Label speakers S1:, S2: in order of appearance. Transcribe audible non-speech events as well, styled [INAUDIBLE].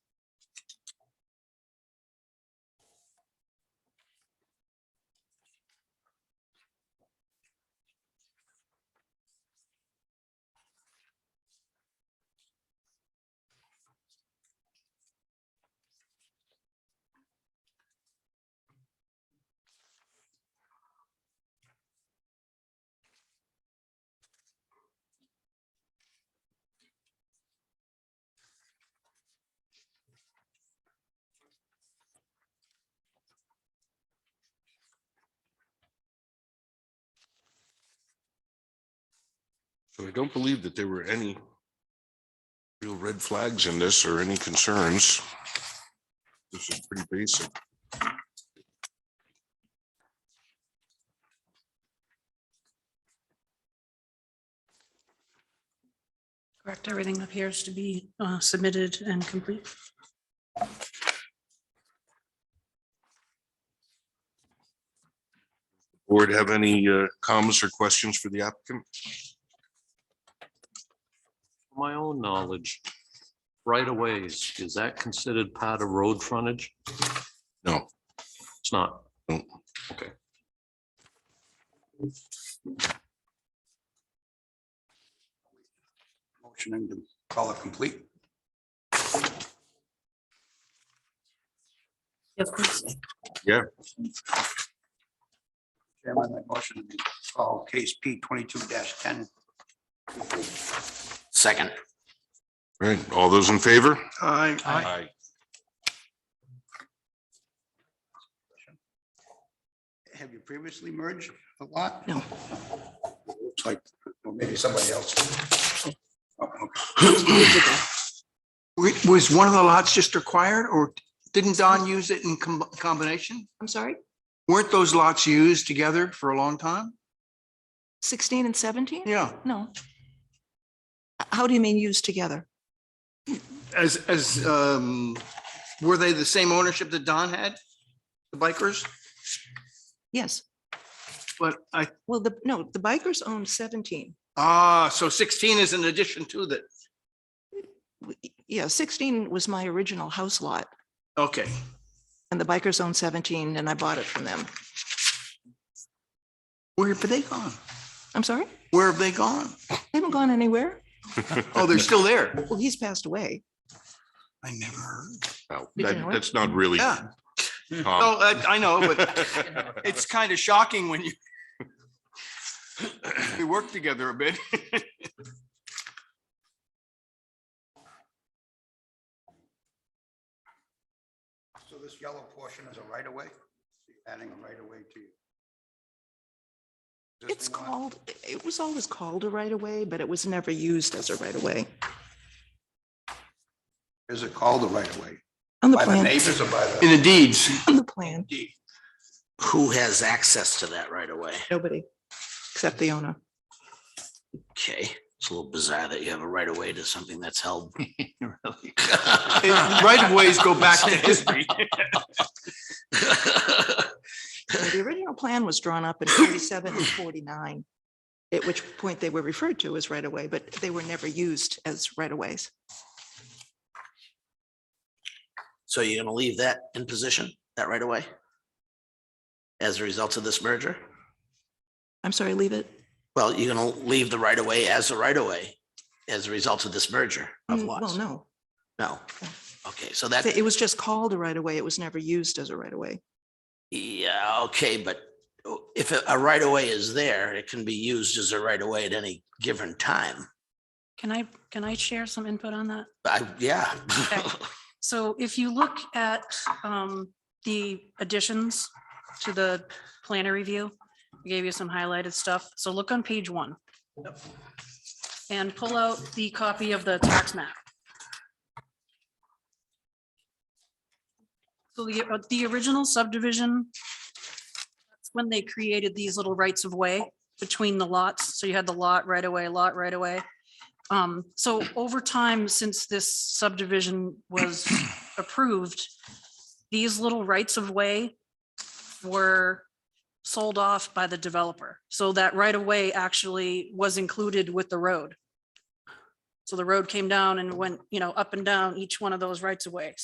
S1: So I don't believe that there were any real red flags in this or any concerns. This is pretty basic.
S2: Correct, everything appears to be uh, submitted and complete.
S1: Board have any uh, comments or questions for the applicant?
S3: My own knowledge, right of ways, is that considered part of road frontage?
S1: No.
S3: It's not.
S4: Motioning to call it complete.
S2: Yes, please.
S4: Chairman, I motion to call case P twenty-two ten.
S5: Second.
S1: Right, all those in favor?
S4: Aye.
S1: Aye.
S4: Have you previously merged a lot?
S2: No.
S4: Looks like, or maybe somebody else. Oh, okay.
S6: Wait, Was one of the lots just acquired or didn't Don use it in com- combination?
S7: I'm sorry,
S6: Weren't those lots used together for a long time?
S7: sixteen and seventeen?
S6: Yeah.
S7: No. H- How do you mean used together?
S6: As, as, um, were they the same ownership that Don had? The bikers?
S7: Yes,
S6: But I,
S7: well, the, no, the bikers owned seventeen.
S6: ah, so sixteen is an addition to that.
S7: W- Yeah, sixteen was my original house lot
S6: Okay.
S7: and the bikers owned seventeen and I bought it from them.
S6: Where have they gone?
S7: I'm sorry,
S6: Where have they gone?
S7: they haven't gone anywhere.
S6: Oh, they're still there.
S7: Well, he's passed away.
S6: I never heard.
S1: No,
S7: Did you
S1: that-
S7: know it?
S1: That's not really.
S6: Yeah.
S1: Tom.
S6: No, Oh, I, I know,
S1: [LAUGHS]
S6: but it's kind of shocking when you we work together a bit.
S4: So this yellow portion is a right of way? Adding a right of way to you.
S7: It's called, it was always called a right of way, but it was never used as a right of way.
S4: Is it called a right of way?
S7: On the
S4: By the
S7: plan,
S4: neighbors or by the?
S6: In the deeds.
S7: on the plan,
S5: Who has access to that right away?
S7: nobody except the owner.
S5: Okay, it's a little bizarre that you have a right of way to something that's held. [LAUGHS]
S6: It- [LAUGHS] Right of ways go back to [LAUGHS] history.
S7: Uh, The original plan was drawn up in forty-seven and forty-nine, at which point they were referred to as right-of-way, but they were never used as right-of-ways.
S5: So you're gonna leave that in position, that right away? As a result of this merger?
S7: I'm sorry, leave it.
S5: Well, you're gonna leave the right away as a right away as a result of this merger of
S7: Mm, Well,
S5: lots?
S7: no,
S5: No. Okay, so that,
S7: it was just called a right-of-way. It was never used as a right-of-way.
S5: yeah, okay, but if a- a right away is there, it can be used as a right away at any given time.
S2: Can I, can I share some input on that?
S5: I, yeah.
S2: Okay. So if you look at um, the additions to the planner review, I gave you some highlighted stuff. So look on page one. And pull out the copy of the tax map. So the, uh, the original subdivision, that's when they created these little rights of way between the lots. So you had the lot right away, lot right away. Um, so over time, since this subdivision was approved, these little rights of way were sold off by the developer. So that right of way actually was included with the road. So the road came down and went, you know, up and down each one of those rights of way.